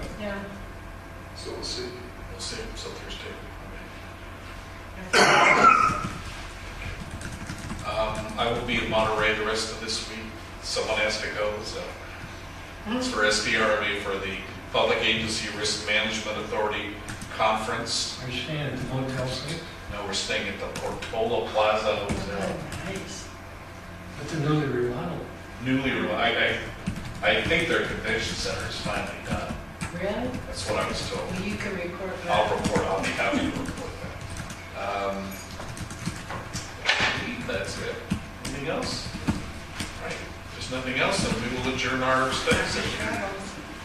So we'll see. We'll see, so Thursday. okay. Um, I will be in Monterey the rest of this week. Someone has to go, so. It's for SDRB, for the Public Agency Risk Management Authority Conference. Are you staying at the Motel 6? Now we're staying at the Portola Plaza Hotel. Nice. But the newly remodeled. Newly, re- I, I, I think their convention center is finally done. Really? That's what I was told. Well, you can report I'll back. report, I'll be happy to report that. Um, I believe That's it. Anything else? Right, if there's nothing else, then we will adjourn our study session. Travel.